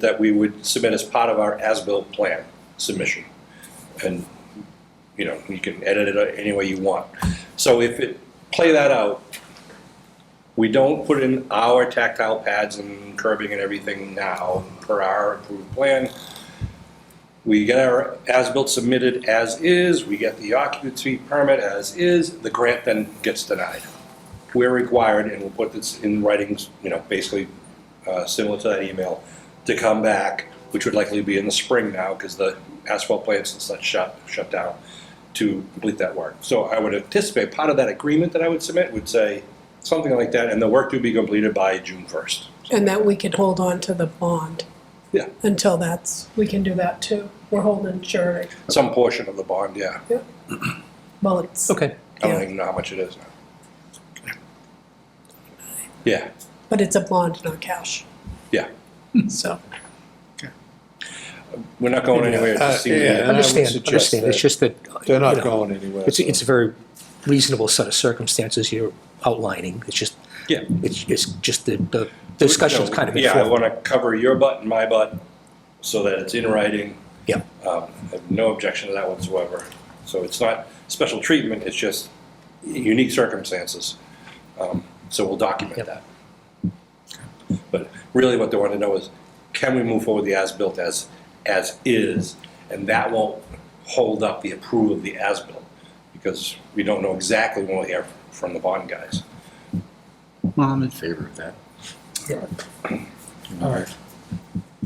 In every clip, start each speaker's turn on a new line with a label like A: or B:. A: that we would submit as part of our as-built plan submission. And, you know, you can edit it any way you want. So if it, play that out, we don't put in our tactile pads and curbing and everything now per our approved plan. We get our as-built submitted as is, we get the occupancy permit as is, the grant then gets denied. We're required, and we'll put this in writings, you know, basically uh, similar to that email, to come back, which would likely be in the spring now, because the asphalt plants and such shut, shut down, to complete that work. So I would anticipate part of that agreement that I would submit would say something like that, and the work to be completed by June first.
B: And that we could hold on to the bond.
A: Yeah.
B: Until that's, we can do that too. We're holding surety.
A: Some portion of the bond, yeah.
B: Well, it's,
C: Okay.
A: I don't
B: Yeah.
A: even know how much it is now. Yeah,
B: but it's a bond, not cash.
A: yeah.
B: So,
A: We're not going anywhere. It
D: Uh,
A: just seems-
D: yeah. And I would
C: Understand,
D: suggest
C: understand. It's
D: that
C: just that.
D: They're
C: you
D: not
C: know,
D: going anywhere.
C: It's,
D: so-
C: it's a very reasonable set of circumstances you're outlining. It's just,
A: Yeah.
C: it's, it's just the, the discussion's
A: No,
C: kind of
A: Yeah, I
C: informal.
A: want to cover your butt and my butt so that it's in writing.
C: Yeah.
A: Um, I have no objection to that whatsoever. So it's not special treatment, it's just unique circumstances. Um, So we'll document that. But really what they want to know is, can we move forward the as-built as, as is? And that won't hold up the approval of the as-built because we don't know exactly when we'll hear from the bond guys.
E: Well, I'm in favor of that.
D: All right.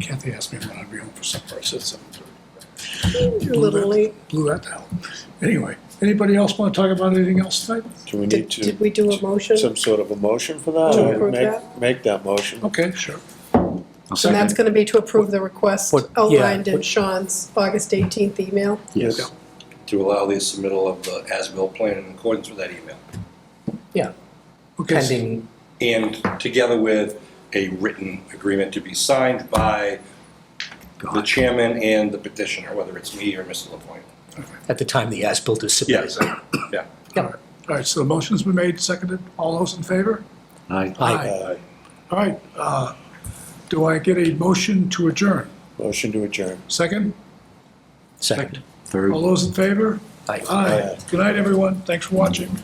D: Kathy asked me when I'd be home for supper. I said seven thirty.
B: a little late.
D: Blew that out. Anyway, anybody else want to talk about anything else tonight?
F: Do we
B: Did,
F: need
B: did
F: to,
B: we do a motion?
F: some sort of a motion
B: To
F: for that? or
B: approve
F: Make,
B: that?
F: make that motion.
D: Okay, sure.
E: I'll
B: And that's
E: second.
B: gonna be to approve the request
C: What- yeah,
B: outlined in
C: what-
B: Sean's August eighteenth email.
E: Yes.
A: to allow the submittal of the as-built plan in accordance with that email,
C: Yeah,
D: Okay. so-
C: pending,
A: and together with a written agreement to be signed by the chairman and the petitioner, whether it's me or Mr. LaPointe.
C: at the time the as-built is submitted.
A: Yes, yeah.
D: All right, so the motion's been made, seconded. All those in favor?
E: Aye.
C: Aye.
F: Aye.
D: All right, uh, do I get a motion to adjourn?
F: Motion to adjourn.
D: Second?
C: Second.
E: Third.
D: All those in favor?
C: Aye.
D: Aye. Good night, everyone. Thanks for watching.